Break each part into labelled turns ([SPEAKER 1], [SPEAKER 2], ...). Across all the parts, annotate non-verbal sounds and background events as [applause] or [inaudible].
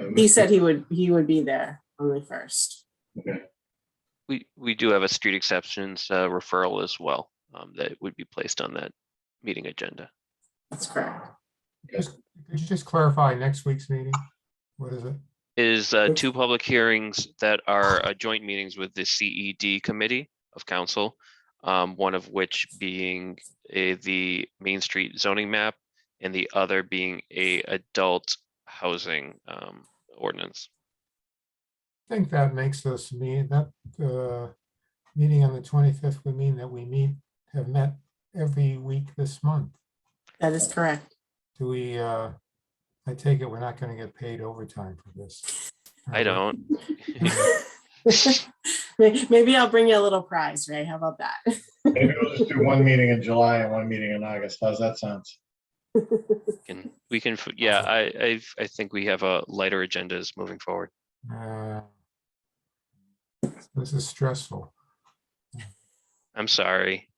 [SPEAKER 1] Uh,
[SPEAKER 2] He
[SPEAKER 1] Mr.
[SPEAKER 2] said he would, he would be there on the first.
[SPEAKER 1] Okay,
[SPEAKER 3] We, we do have a street exceptions uh, referral as well um, that would be placed on that meeting agenda.
[SPEAKER 2] That's correct.
[SPEAKER 4] Could you just clarify next week's meeting? What is it?
[SPEAKER 3] Is uh,
[SPEAKER 4] Yes.
[SPEAKER 3] two public hearings that are uh, joint meetings with the CED Committee of Council. um, One of which being a, the Main Street zoning map and the other being a adult housing um, ordinance.
[SPEAKER 4] I think that makes us mean that uh meeting on the twenty-fifth would mean that we meet, have met every week this month.
[SPEAKER 2] That is
[SPEAKER 4] [laughs]
[SPEAKER 2] correct.
[SPEAKER 4] Do we, uh, I take it we're not gonna get paid overtime for this?
[SPEAKER 3] [laughs] I don't.
[SPEAKER 2] May- Maybe I'll bring you a little prize, Ray. How about that?
[SPEAKER 1] maybe we'll just do one meeting in July and one meeting in August. How's that sound?
[SPEAKER 3] Can, we can, f- yeah, I, I've, I think we have a lighter agendas moving forward.
[SPEAKER 4] Uh, This is stressful.
[SPEAKER 3] I'm sorry.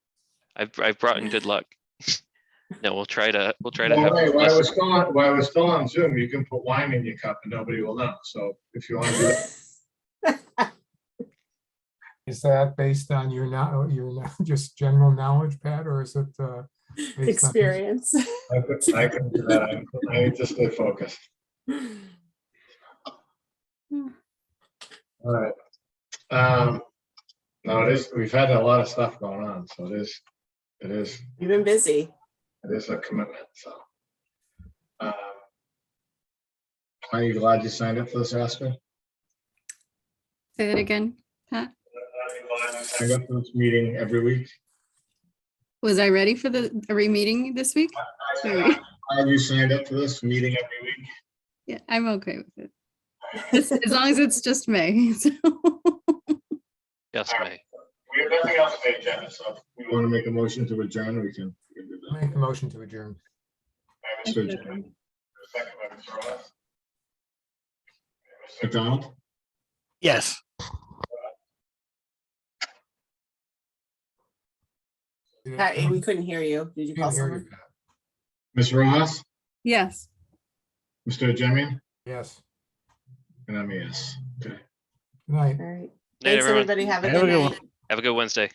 [SPEAKER 3] I've, I've brought in good luck. [laughs] No, we'll try to, we'll try to
[SPEAKER 1] Well,
[SPEAKER 3] have.
[SPEAKER 1] wait, While we're
[SPEAKER 3] less-
[SPEAKER 1] still, on- while we're still on Zoom, you can put wine in your cup and nobody will know. So if you want to do it,
[SPEAKER 4] Is that based on your now, your now, [laughs] just general knowledge, Pat, or is it? uh, based
[SPEAKER 2] [laughs]
[SPEAKER 4] on-
[SPEAKER 2] Experience.
[SPEAKER 1] I could- I can do that. I'm- I need to stay focused. All right. Um, no, it is, we've had a lot of stuff going on, so it is, it is,
[SPEAKER 2] You've been busy.
[SPEAKER 1] it is a commitment, so. Um, Are you glad you signed up for this, Aspen?
[SPEAKER 5] Say that again, Pat.
[SPEAKER 1] I go to this meeting every week.
[SPEAKER 5] Was I ready for the, are we meeting this week?
[SPEAKER 1] [laughs]
[SPEAKER 5] Sorry.
[SPEAKER 1] Have you signed up for this meeting every week?
[SPEAKER 5] Yeah, I'm okay with it. As as long as it's just May. [laughs] so.
[SPEAKER 3] Yes, May.
[SPEAKER 1] We have nothing else to agenda, so if we want to make a motion to adjourn, we can. we can do that.
[SPEAKER 4] Make a motion to adjourn.
[SPEAKER 1] By Mr. Adjourn. Second by Mr. Ross. Mr. McDonald?
[SPEAKER 6] Yes.
[SPEAKER 2] Pat, We couldn't hear you. Did you call
[SPEAKER 4] Can't hear you,
[SPEAKER 2] someone?
[SPEAKER 4] Pat.
[SPEAKER 1] Ms. Ross?
[SPEAKER 5] Yes.
[SPEAKER 1] Mr. Jemian?
[SPEAKER 4] Yes,
[SPEAKER 1] And I'm a yes. Okay.
[SPEAKER 4] good night.
[SPEAKER 2] All right.
[SPEAKER 3] Night,
[SPEAKER 2] Thanks,
[SPEAKER 3] everyone.
[SPEAKER 2] everybody. Have a
[SPEAKER 6] Have a
[SPEAKER 2] good
[SPEAKER 6] good
[SPEAKER 2] night.
[SPEAKER 3] Have a good Wednesday.